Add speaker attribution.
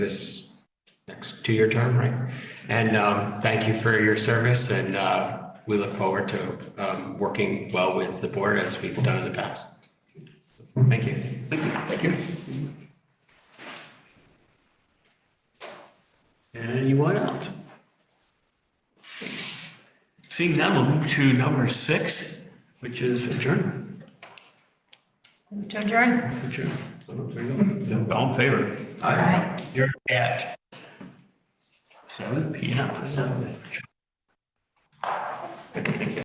Speaker 1: this next two-year term, right? And um, thank you for your service and uh, we look forward to um, working well with the board as we've done in the past. Thank you.
Speaker 2: Thank you. Anyone else? Seeing none, we'll move to number six, which is adjourn.
Speaker 3: To adjourn?
Speaker 2: Adjourn. All in favor?
Speaker 3: Aye.
Speaker 2: You're at seven P M.